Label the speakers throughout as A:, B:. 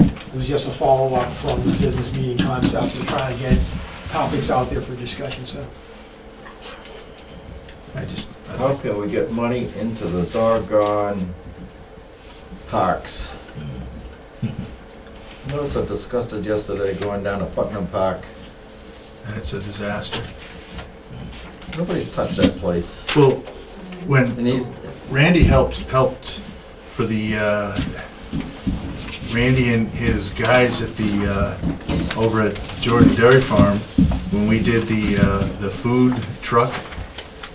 A: It was just a follow-up from the business meeting concept, to try to get topics out there for discussion, so.
B: I just, I
C: How
B: don't-
C: can we get money into the doggone parks? Notice I discussed it yesterday going down to Putnam Park.
B: and it's a disaster.
C: Nobody's touched that place.
B: Well,
C: And
B: when
C: he's,
B: Randy helped, helped for the, uh, Randy and his guys at the, uh, over at Jordan Dairy Farm, when we did the, uh, the food truck,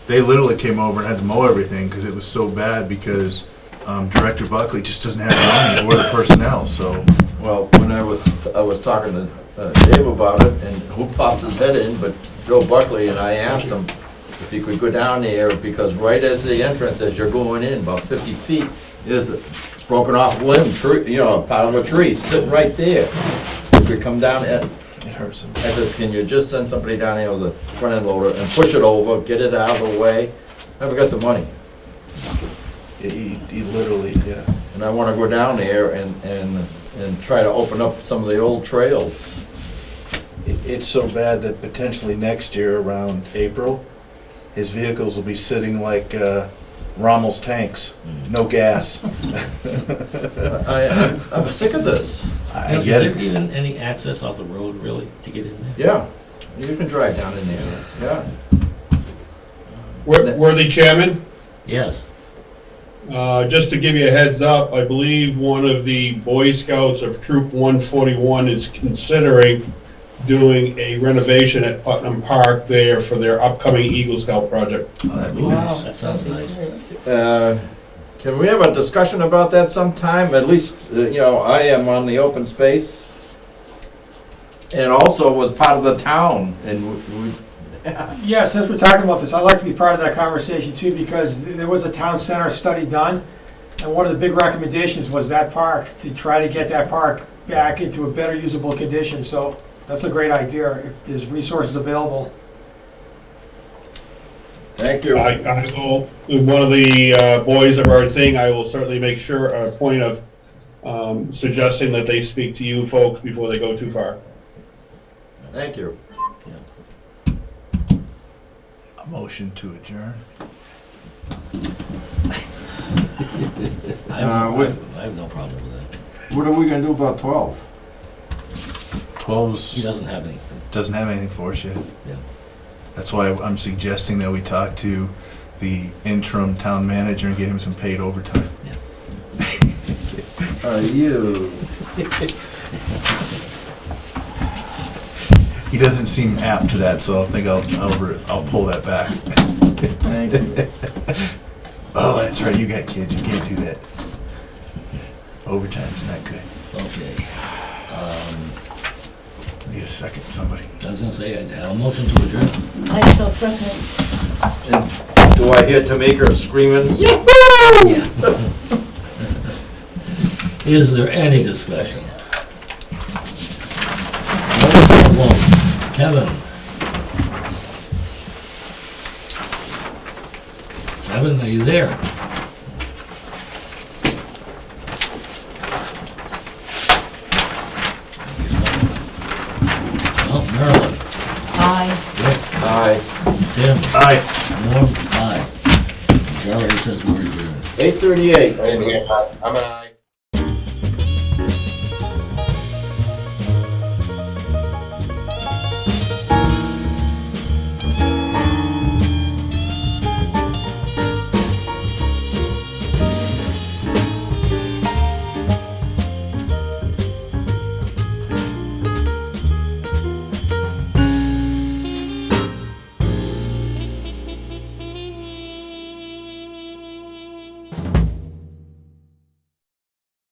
B: they literally came over and had to mow everything because it was so bad because um, Director Buckley just doesn't have the money or the personnel, so.
C: well, when I was, I was talking to uh, Dave about it, and who popped his head in but Joe Buckley, and I asked him if he could go down there, because right as the entrance, as you're going in, about fifty feet, is a broken off limb, tree, you know, part of a tree, sitting right there. If we come down and
B: It hurts them.
C: I says, can you just send somebody down here with a front end loader and push it over, get it out of the way? Never got the money.
B: He, he literally, yeah.
C: And I wanna go down there and, and, and try to open up some of the old trails.
B: It- It's so bad that potentially next year, around April, his vehicles will be sitting like uh, Rommel's tanks, no gas.
C: I, I'm- I'm sick of this.
B: I
D: Now,
B: get
D: Is
B: it.
D: there even any access off the road, really, to get in there?
C: Yeah, you can drive down in there, yeah.
E: Wor- Worthy Chairman,
D: Yes.
E: uh, just to give you a heads up, I believe one of the Boy Scouts of Troop 141 is considering doing a renovation at Putnam Park there for their upcoming Eagle Scout project.
B: Oh, that'd be nice.
D: That sounds nice.
C: Uh, Can we have a discussion about that sometime? At least, uh, you know, I am on the open space. And also was part of the town and we, we-
A: Yeah, since we're talking about this, I'd like to be part of that conversation too, because th- there was a town center study done, and one of the big recommendations was that park, to try to get that park back into a better usable condition, so that's a great idea, if there's resources available.
C: thank you.
E: I, I will, with one of the uh, boys of our thing, I will certainly make sure, a point of um, suggesting that they speak to you folks before they go too far.
C: Thank you.
B: A Motion to adjourn.
D: I
C: Uh,
D: have, no- I
C: we-
D: have- I have no problem with that.
C: What are we gonna do about twelve?
D: He
B: Twelve's,
D: doesn't have any.
B: doesn't have anything for us yet.
D: Yeah.
B: That's why I'm suggesting that we talk to the interim town manager and get him some paid overtime.
C: Are you?
B: He doesn't seem apt to that, so I think I'll, I'll, re- I'll pull that back.
C: Thank you.
B: Oh, that's right, you got kids, you can't do that. Overtime's not good.
D: Okay. Um,
B: Need a second, somebody.
D: I was gonna say, I had a motion to adjourn.
F: I shall second.
C: And Do I hear Tamika screaming?
D: Is there any discussion? Kevin? Kevin, are you there? Oh, Marilyn,
F: Aye.
D: Rick,
C: Aye.
D: Tim,
B: All right.
D: Norm, aye. Charlie says we're adjourned.
C: Eight thirty-eight.
G: I'm an I.